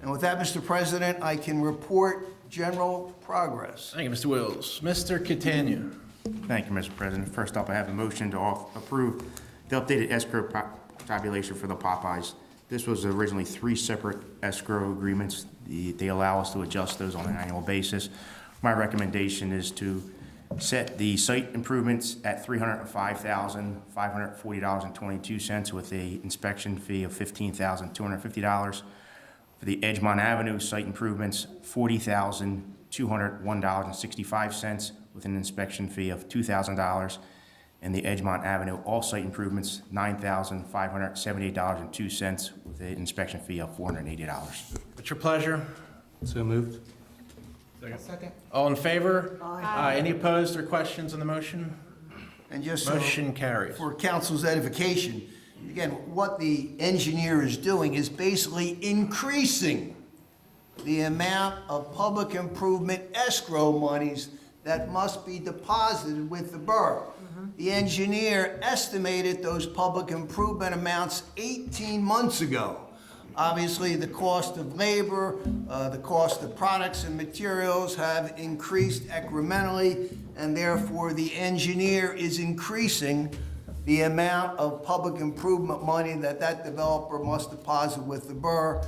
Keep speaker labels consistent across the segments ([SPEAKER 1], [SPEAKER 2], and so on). [SPEAKER 1] And with that, Mr. President, I can report general progress.
[SPEAKER 2] Thank you, Mr. Wills. Mr. Catania.
[SPEAKER 3] Thank you, Mr. President. First up, I have a motion to off- approve the updated escrow po- tabulation for the Popeyes. This was originally three separate escrow agreements. The- They allow us to adjust those on an annual basis. My recommendation is to set the site improvements at $305,540.22 with a inspection fee of $15,250. For the Edgemont Avenue site improvements, forty thousand, two hundred, one dollars and sixty-five cents with an inspection fee of two thousand dollars. And the Edgemont Avenue all-site improvements, nine thousand, five hundred, seventy-eight dollars and two cents with an inspection fee of four hundred and eighty dollars.
[SPEAKER 2] It's your pleasure.
[SPEAKER 4] So moved.
[SPEAKER 2] All in favor? Aye. Any opposed or questions on the motion?
[SPEAKER 1] And just so-
[SPEAKER 2] Motion carries.
[SPEAKER 1] for council's edification, again, what the engineer is doing is basically increasing the amount of public improvement escrow monies that must be deposited with the borough. The engineer estimated those public improvement amounts 18 months ago. Obviously, the cost of labor, uh, the cost of products and materials have increased incrementally, and therefore, the engineer is increasing the amount of public improvement money that that developer must deposit with the borough.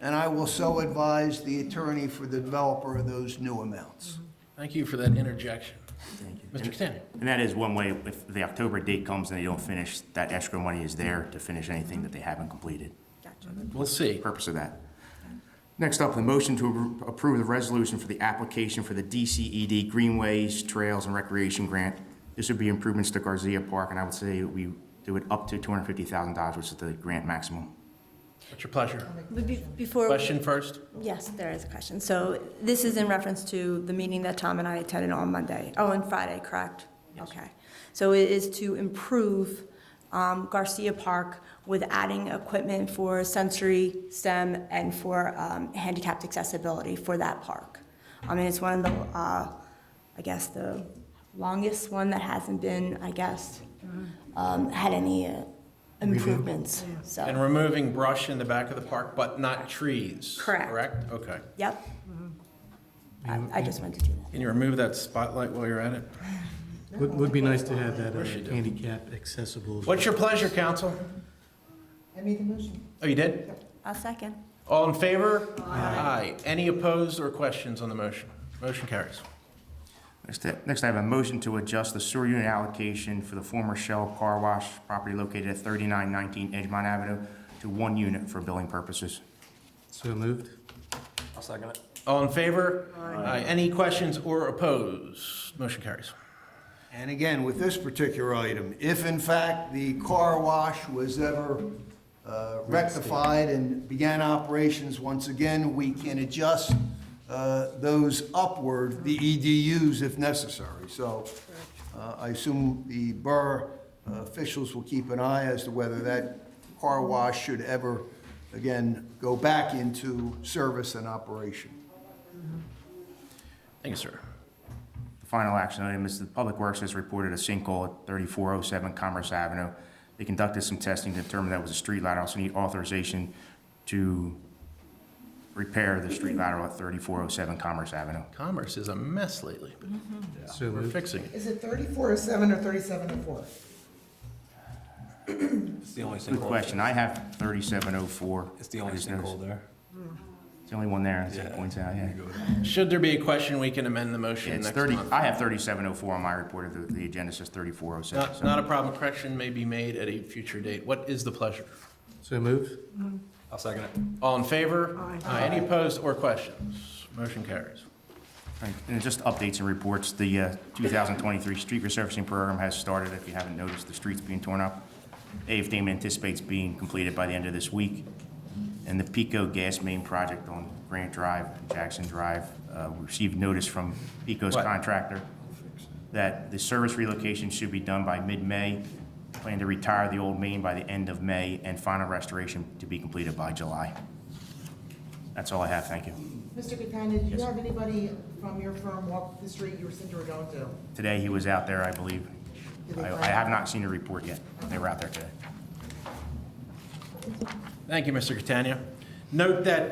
[SPEAKER 1] And I will so advise the attorney for the developer of those new amounts.
[SPEAKER 2] Thank you for that interjection. Mr. Catania.
[SPEAKER 3] And that is one way, if the October date comes and they don't finish, that escrow money is there to finish anything that they haven't completed.
[SPEAKER 2] We'll see.
[SPEAKER 3] purpose of that. Next up, the motion to appro- approve the resolution for the application for the DCED Greenways, Trails, and Recreation Grant. This would be improvements to Garcia Park, and I would say we do it up to $250,000, which is the grant maximum.
[SPEAKER 2] It's your pleasure.
[SPEAKER 5] But be- Before,
[SPEAKER 2] Question first?
[SPEAKER 5] yes, there is a question. So this is in reference to the meeting that Tom and I attended on Monday, oh, and Friday, correct? Okay. So it is to improve um, Garcia Park with adding equipment for sensory STEM and for um, handicapped accessibility for that park. I mean, it's one of the, uh, I guess, the longest one that hasn't been, I guess, um, had any uh, improvements, so.
[SPEAKER 2] Mm-hmm. And removing brush in the back of the park, but not trees?
[SPEAKER 5] Correct.
[SPEAKER 2] Correct? Okay.
[SPEAKER 5] Yep. I, I just wanted to do that.
[SPEAKER 2] Can Mm-hmm. you remove that spotlight while you're at it?
[SPEAKER 4] Would, would be nice to have that uh,
[SPEAKER 2] Yes, you do.
[SPEAKER 4] handicap accessible.
[SPEAKER 2] What's your pleasure, council?
[SPEAKER 6] I made the motion.
[SPEAKER 2] Oh, you did?
[SPEAKER 5] I'll second.
[SPEAKER 2] All in favor? Aye. Any opposed or questions on the motion? Motion carries.
[SPEAKER 3] Next up- Next, I have a motion to adjust the sewer unit allocation for the former Shell Car Wash property located at 3919 Edgemont Avenue to one unit for billing purposes.
[SPEAKER 4] So moved.
[SPEAKER 2] All in favor? Aye. Any questions or opposed? Motion carries.
[SPEAKER 1] And again, with this particular item, if in fact the car wash was ever uh, rectified and began operations once again, we can adjust uh, those upward, the EDUs if necessary. So uh, I assume the borough uh, officials will keep an eye as to whether that car wash should ever, again, go back into service and operation.
[SPEAKER 2] Thank you, sir.
[SPEAKER 3] The final action item is the Public Works has reported a sinkhole at 3407 Commerce Avenue. They conducted some testing to determine that was a street lateral, so need authorization to repair the street lateral at 3407 Commerce Avenue.
[SPEAKER 2] Commerce is a mess lately, but
[SPEAKER 4] So
[SPEAKER 2] we're
[SPEAKER 4] moved.
[SPEAKER 2] fixing it.
[SPEAKER 6] Is it thirty-four oh seven or thirty-seven oh four?
[SPEAKER 7] It's the only
[SPEAKER 3] Good
[SPEAKER 7] sinkhole.
[SPEAKER 3] question. I have 3704.
[SPEAKER 7] It's the only
[SPEAKER 3] I just
[SPEAKER 7] sinkhole
[SPEAKER 3] noticed.
[SPEAKER 7] there.
[SPEAKER 3] It's the only one there, as it points out, yeah.
[SPEAKER 2] Should there be a question, we can amend the
[SPEAKER 3] Yeah,
[SPEAKER 2] motion
[SPEAKER 3] it's
[SPEAKER 2] next
[SPEAKER 3] 30,
[SPEAKER 2] month.
[SPEAKER 3] I have 3704 on my report, the, the agenda says 3407.
[SPEAKER 2] Not,
[SPEAKER 3] so-
[SPEAKER 2] not a problem. Correction may be made at a future date. What is the pleasure?
[SPEAKER 4] So moved.
[SPEAKER 7] I'll second it.
[SPEAKER 2] All in favor? Aye. Any opposed or questions? Motion carries.
[SPEAKER 3] Right, And just updates and reports, the uh, 2023 street resurfacing program has started. If you haven't noticed, the streets being torn up. AF Damon anticipates being completed by the end of this week. And the Pico gas main project on Grant Drive, Jackson Drive, uh, we received notice from Pico's
[SPEAKER 2] What?
[SPEAKER 3] contractor that the service relocation should be done by mid-May. Plan to retire the old main by the end of May and final restoration to be completed by July. That's all I have, thank you.
[SPEAKER 6] Mr. Catania, do you have anybody from your firm walk the street you said you were going to?
[SPEAKER 3] Today, he was out there, I believe.
[SPEAKER 6] Did they
[SPEAKER 3] I
[SPEAKER 6] find
[SPEAKER 3] I have not seen a report yet. They were out there today.
[SPEAKER 2] Thank you, Mr. Catania. Note that